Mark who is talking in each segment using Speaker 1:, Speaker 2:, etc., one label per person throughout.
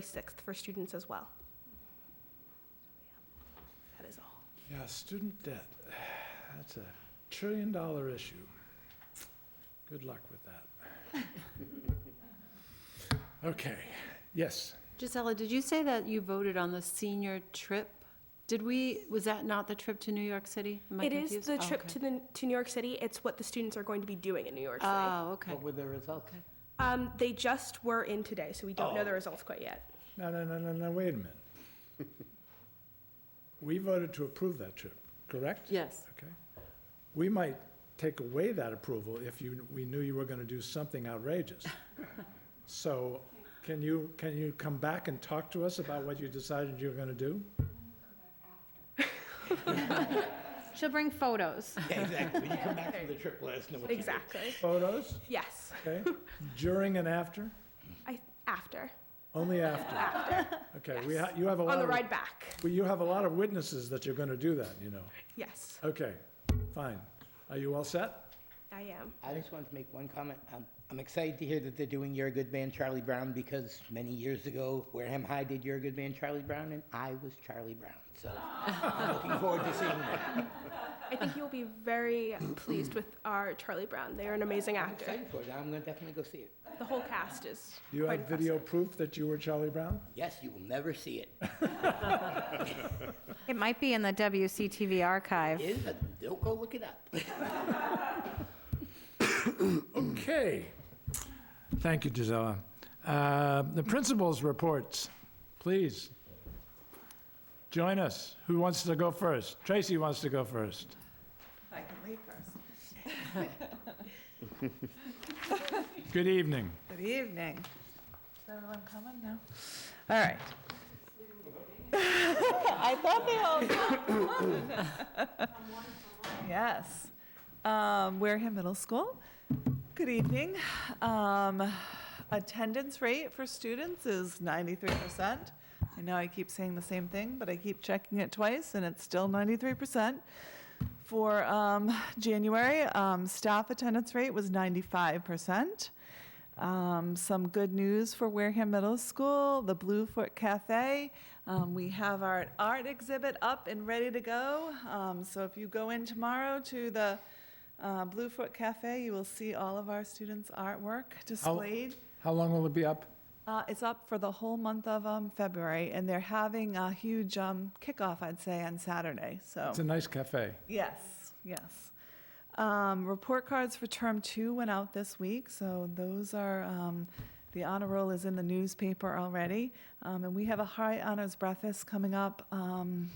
Speaker 1: February 6th for students as well. That is all.
Speaker 2: Yeah, student debt, that's a trillion dollar issue. Good luck with that. Okay, yes,
Speaker 3: Gisela, did you say that you voted on the senior trip? Did we, was that not the trip to New York City? Am I
Speaker 1: It is
Speaker 3: confused?
Speaker 1: the
Speaker 3: Oh,
Speaker 1: trip
Speaker 3: okay.
Speaker 1: to the, to New York City. It's what the students are going to be doing in New York City.
Speaker 3: Oh, okay.
Speaker 4: What were the results?
Speaker 3: Okay.
Speaker 1: Um, They just were in today, so we don't know the results quite yet.
Speaker 2: no, no, no, no, no, wait a minute. We voted to approve that trip, correct?
Speaker 3: Yes,
Speaker 2: Okay. We might take away that approval if you, we knew you were gonna do something outrageous. So, can you, can you come back and talk to us about what you decided you were gonna do?
Speaker 5: She'll bring photos.
Speaker 4: Yeah, exactly. When you come back from the trip, let us know what you did.
Speaker 1: Exactly.
Speaker 2: Photos,
Speaker 1: Yes,
Speaker 2: okay? During and after?
Speaker 1: I, after,
Speaker 2: Only after? Okay, we, ha- you have a lot
Speaker 1: on
Speaker 2: of.
Speaker 1: the ride back.
Speaker 2: Well, you have a lot of witnesses that you're gonna do that, you know.
Speaker 1: Yes,
Speaker 2: Okay, fine. Are you all set?
Speaker 1: I am.
Speaker 4: I just wanted to make one comment. I'm, I'm excited to hear that they're doing You're a Good Man, Charlie Brown, because many years ago, Wareham High did You're a Good Man, Charlie Brown, and I was Charlie Brown. So I'm looking forward to seeing that.
Speaker 1: I think you'll be very pleased with our Charlie Brown. They are an amazing
Speaker 4: I'm
Speaker 1: actor.
Speaker 4: excited for it. I'm going to definitely go see it.
Speaker 1: The whole cast is
Speaker 2: Do you
Speaker 1: quite
Speaker 2: have video proof that you were Charlie Brown?
Speaker 4: Yes, you will never see it.
Speaker 5: It might be in the WCTV archive.
Speaker 4: It is, but don't go look it up.
Speaker 2: Okay. Thank you, Gisella. Uh, The principal's reports, please. Join us. Who wants to go first? Tracy wants to go first.
Speaker 6: I can read first.
Speaker 2: Good evening.
Speaker 6: Good evening. Is everyone coming now? All right. I thought they all. Yes. Um, Wareham Middle School. Good evening. Um, attendance rate for students is ninety-three percent. I know I keep saying the same thing, but I keep checking it twice and it's still ninety-three percent. For, um, January, um, staff attendance rate was ninety-five percent. Um, some good news for Wareham Middle School, the Bluefoot Cafe. Um, we have our art exhibit up and ready to go. Um, so if you go in tomorrow to the uh, Bluefoot Cafe, you will see all of our students' artwork displayed.
Speaker 2: How long will it be up?
Speaker 6: Uh, it's up for the whole month of um, February, and they're having a huge um, kickoff, I'd say, on Saturday. So
Speaker 2: It's a nice cafe.
Speaker 6: Yes, yes. Um, report cards for term two went out this week, so those are, um, the honor roll is in the newspaper already. Um, and we have a high honors breakfast coming up, um,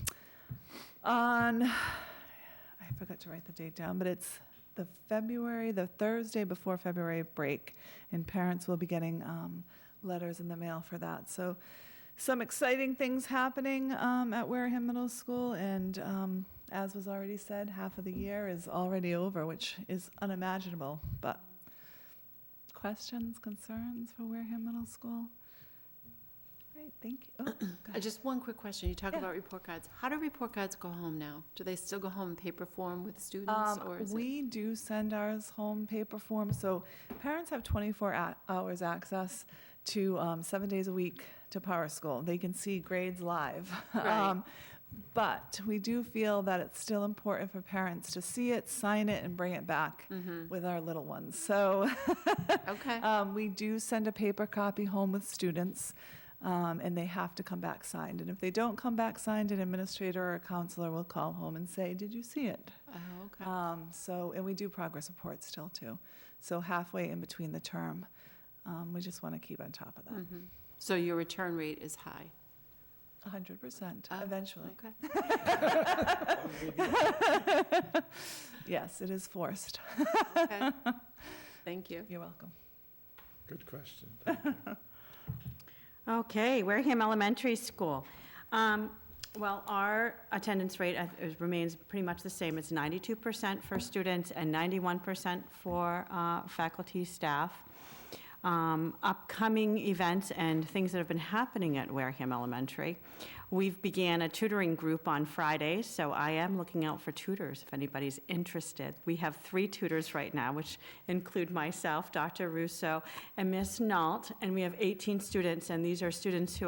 Speaker 6: on, I forgot to write the date down, but it's the February, the Thursday before February break. And parents will be getting, um, letters in the mail for that. So some exciting things happening um, at Wareham Middle School, and um, as was already said, half of the year is already over, which is unimaginable. But questions, concerns for Wareham Middle School? Great, thank you. Oh, go
Speaker 3: Uh,
Speaker 6: ahead.
Speaker 3: just one quick question. You talk
Speaker 6: Yeah.
Speaker 3: about report cards. How do report cards go home now? Do they still go home in paper form with students,
Speaker 6: Um,
Speaker 3: or is it?
Speaker 6: we do send ours home paper form, so parents have 24 a- hours access to um, seven days a week to Power School. They can see grades live.
Speaker 3: Right.
Speaker 6: Um, but we do feel that it's still important for parents to see it, sign it, and bring it back with our little ones. So
Speaker 3: Mm-hmm. Okay,
Speaker 1: Uh,
Speaker 6: um, we do send a paper copy home with students, um, and they have to come back signed. And if they don't come back signed, an administrator or a counselor will call home and say, "Did you see it?"
Speaker 3: oh,
Speaker 1: uh,
Speaker 3: okay.
Speaker 6: Um, so, and we do progress reports still too. So halfway in between the term, um, we just want to keep on top of that.
Speaker 3: Mhm. So your return rate is high?
Speaker 6: A hundred percent,
Speaker 3: Hmm. Oh,
Speaker 6: eventually.
Speaker 3: Okay.
Speaker 6: Yes, it is forced.
Speaker 3: Okay. Thank you.
Speaker 6: You're welcome.
Speaker 2: Good question.
Speaker 7: Okay, Wareham Elementary School. Um, Well, our attendance rate uh, is- remains pretty much the same. It's 92% for students and 91% for uh, faculty, staff. Um, Upcoming events and things that have been happening at Wareham Elementary. We've began a tutoring group on Fridays, so I am looking out for tutors if anybody's interested. We have three tutors right now, which include myself, Dr. Russo, and Miss Nault, and we have 18 students, and these are students who